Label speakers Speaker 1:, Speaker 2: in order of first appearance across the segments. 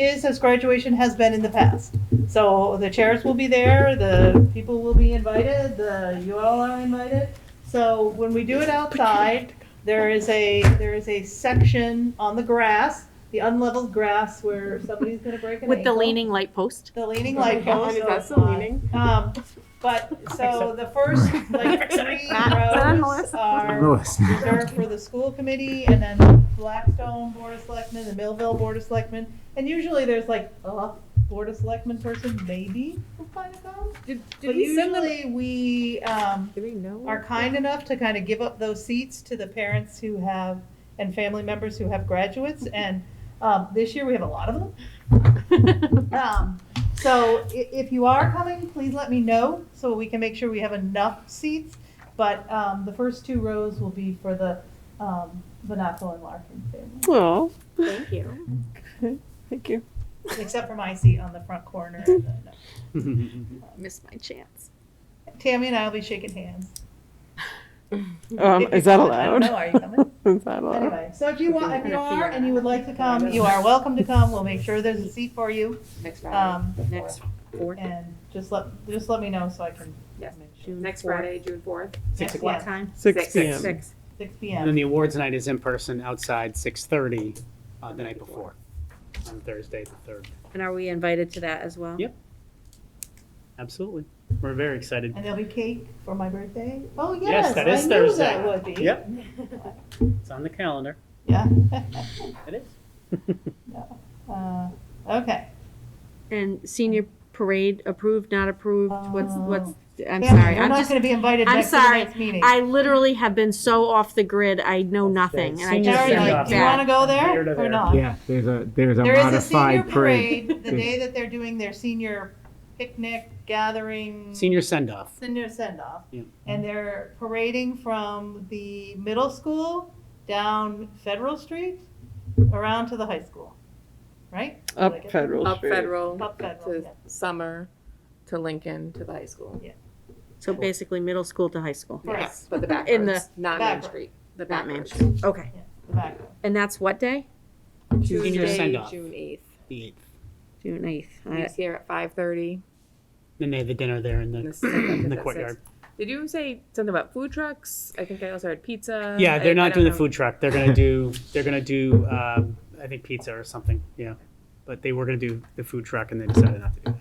Speaker 1: is as graduation has been in the past. So the chairs will be there, the people will be invited, the, you all are invited. So when we do it outside, there is a, there is a section on the grass, the unleveled grass where somebody's gonna break an ankle.
Speaker 2: With the leaning light post?
Speaker 1: The leaning light post.
Speaker 3: Oh Is that still leaning?
Speaker 1: Um, but, so the first, like, three rows are reserved for the school committee, and then the Blackstone Board of Selectmen, the Millville Board of Selectmen, and usually there's like a Board of Selectmen person, maybe, who kind of comes. But usually we, um,
Speaker 3: Do we know?
Speaker 1: are kind enough to kind of give up those seats to the parents who have, and family members who have graduates, and, um, this year we have a lot of them. Um, so i- if you are coming, please let me know so we can make sure we have enough seats. But, um, the first two rows will be for the, um, Vanaco and Larkin family,
Speaker 3: Oh,
Speaker 2: Thank you.
Speaker 3: thank you.
Speaker 1: except for my seat on the front corner. and then, uh,
Speaker 2: Missed my chance.
Speaker 1: Tammy and I will be shaking hands.
Speaker 3: Um,
Speaker 1: If
Speaker 3: is
Speaker 1: you're
Speaker 3: that
Speaker 1: coming. I don't
Speaker 3: allowed?
Speaker 1: know, are you coming?
Speaker 3: Is that allowed?
Speaker 1: Anyway, so if you want, if you
Speaker 2: Gonna figure
Speaker 1: are
Speaker 2: it
Speaker 1: and you would like to come, you are welcome to come. We'll make sure there's a seat for you.
Speaker 4: Next Friday,
Speaker 1: Um,
Speaker 4: next,
Speaker 1: and just let, just let me know so I can.
Speaker 4: Yes.
Speaker 1: make sure.
Speaker 4: next Friday, June fourth.
Speaker 5: Six
Speaker 1: Yeah.
Speaker 5: o'clock.
Speaker 2: Time.
Speaker 3: Six PM.
Speaker 4: Six.
Speaker 1: Six
Speaker 5: And then
Speaker 1: PM.
Speaker 5: the awards night is in person outside, 6:30, uh, the night before, on Thursday, the 3rd.
Speaker 2: And are we invited to that as well?
Speaker 5: Yep. Absolutely. We're very excited.
Speaker 1: And there'll be cake for my birthday. Oh, yes,
Speaker 5: Yes, that
Speaker 1: I
Speaker 5: is
Speaker 1: knew
Speaker 5: Thursday.
Speaker 1: that would be.
Speaker 5: Yep. It's on the calendar.
Speaker 1: Yeah.
Speaker 5: It is.
Speaker 1: Uh, Okay.
Speaker 2: And senior parade approved, not approved? What's, what's, I'm
Speaker 1: Tammy,
Speaker 2: sorry.
Speaker 1: You're
Speaker 2: I'm
Speaker 1: not
Speaker 2: just,
Speaker 1: going to be invited
Speaker 2: I'm
Speaker 1: next to the
Speaker 2: sorry.
Speaker 1: next meeting.
Speaker 2: I literally have been so off the grid. I know nothing and I
Speaker 5: Senior
Speaker 2: just feel
Speaker 5: parade.
Speaker 2: like
Speaker 1: do you want
Speaker 2: bad.
Speaker 1: to go
Speaker 5: Here to
Speaker 1: there or
Speaker 5: there.
Speaker 1: not?
Speaker 6: Yeah, there's a, there's a
Speaker 1: There is a senior
Speaker 6: modified parade.
Speaker 1: parade, the day that they're doing their senior picnic gathering.
Speaker 5: Senior send-off.
Speaker 1: Senior send-off.
Speaker 5: Yeah.
Speaker 1: And they're parading from the middle school down Federal Street, around to the high school, right? Did I get
Speaker 3: Up
Speaker 1: that?
Speaker 3: Federal
Speaker 4: Up
Speaker 3: Street.
Speaker 4: Federal
Speaker 1: Up Federal,
Speaker 4: to
Speaker 1: yeah.
Speaker 4: Summer to Lincoln to the high school.
Speaker 2: So basically middle school to high school.
Speaker 1: Correct.
Speaker 4: Yes, But the back
Speaker 2: In
Speaker 4: roads, not Main
Speaker 1: back road.
Speaker 4: Street, the
Speaker 2: Not
Speaker 4: back
Speaker 2: Main
Speaker 4: roads.
Speaker 2: Street. Okay.
Speaker 1: the back row.
Speaker 2: And that's what day?
Speaker 5: Senior
Speaker 4: Tuesday,
Speaker 5: send-off,
Speaker 4: June eighth.
Speaker 5: the 8th.
Speaker 2: June 8th. I-
Speaker 4: He's here at five thirty.
Speaker 5: Then they have the dinner there in the,
Speaker 4: This is like
Speaker 5: in
Speaker 4: at
Speaker 5: the
Speaker 4: six.
Speaker 5: courtyard.
Speaker 4: Did you say something about food trucks? I think I also heard pizza.
Speaker 5: Yeah,
Speaker 4: I- I
Speaker 5: they're not
Speaker 4: don't
Speaker 5: doing the
Speaker 4: know.
Speaker 5: food truck. They're gonna do, they're gonna do, um, I think pizza or something, yeah. But they were gonna do the food truck and they decided not to do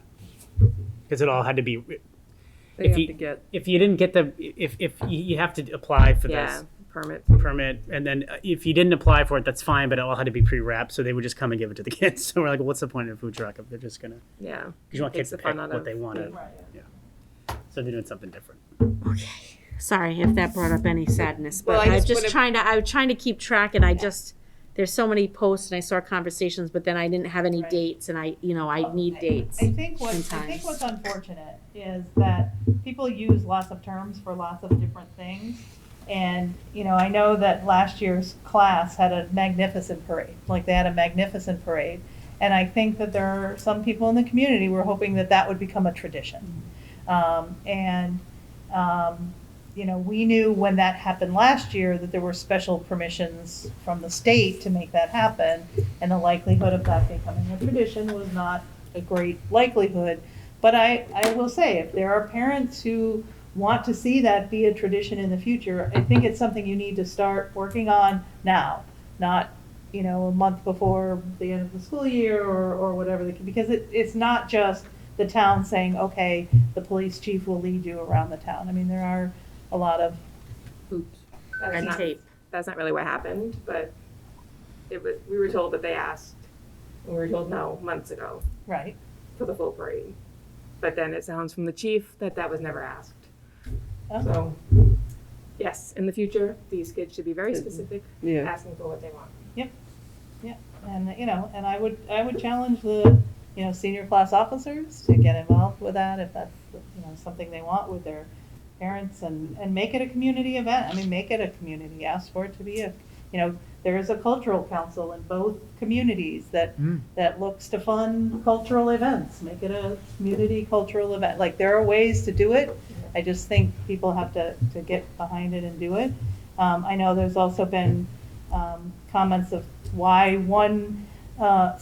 Speaker 5: that. Because it all had to be,
Speaker 4: They
Speaker 5: if
Speaker 4: have
Speaker 5: you-
Speaker 4: to get,
Speaker 5: if you didn't get the, if, if, you you have to apply for
Speaker 4: yeah,
Speaker 5: this
Speaker 4: permits.
Speaker 5: permit, and then uh, if you didn't apply for it, that's fine, but it all had to be pre-wrapped, so they would just come and give it to the kids. So we're like, what's the point of a food truck if they're just gonna, 'cause
Speaker 4: Yeah.
Speaker 5: you want kids
Speaker 4: Takes
Speaker 5: to
Speaker 4: the
Speaker 5: pick
Speaker 4: fun out
Speaker 5: what
Speaker 4: of-
Speaker 5: they wanted,
Speaker 1: Right.
Speaker 5: so they're doing something different.
Speaker 2: Sorry if that brought up any sadness, but
Speaker 4: Well, I
Speaker 2: I was
Speaker 4: just
Speaker 2: just
Speaker 4: wanna-
Speaker 2: trying to, I was trying to keep track and I just, there's so many posts and I saw conversations, but then I didn't have any
Speaker 1: Right.
Speaker 2: dates and I, you know, I need dates.
Speaker 1: I think what, I think
Speaker 2: sometimes.
Speaker 1: what's unfortunate is that people use lots of terms for lots of different things. And, you know, I know that last year's class had a magnificent parade, like they had a magnificent parade. And I think that there are some people in the community who are hoping that that would become a tradition.
Speaker 2: Mm-hmm.
Speaker 1: Um, and, um, you know, we knew when that happened last year that there were special permissions from the state to make that happen. And the likelihood of that becoming a tradition was not a great likelihood. But I, I will say, if there are parents who want to see that be a tradition in the future, I think it's something you need to start working on now, not, you know, a month before the end of the school year or, or whatever. the- Because it, it's not just the town saying, okay, the police chief will lead you around the town. I mean, there are a lot of
Speaker 4: That's
Speaker 2: Red
Speaker 4: not-
Speaker 2: tape.
Speaker 4: That's not really what happened, but it was, we were told that they asked, and we were told no months ago
Speaker 1: Right.
Speaker 4: for the full parade. But then it sounds from the chief that that was never asked.
Speaker 1: Oh.
Speaker 4: So, yes, in the future, these kids should be very specific,
Speaker 3: Yeah.
Speaker 4: asking for what they want.
Speaker 1: And, you know, and I would, I would challenge the, you know, senior class officers to get involved with that if that's, you know, something they want with their parents and, and make it a community event. I mean, make it a community, ask for it to be a, you know, there is a cultural council in both communities that,
Speaker 6: Mm.
Speaker 1: that looks to fund cultural events. Make it a community cultural event. Like, there are ways to do it. I just think people have to, to get behind it and do it. Um, I know there's also been, um, comments of why one, uh,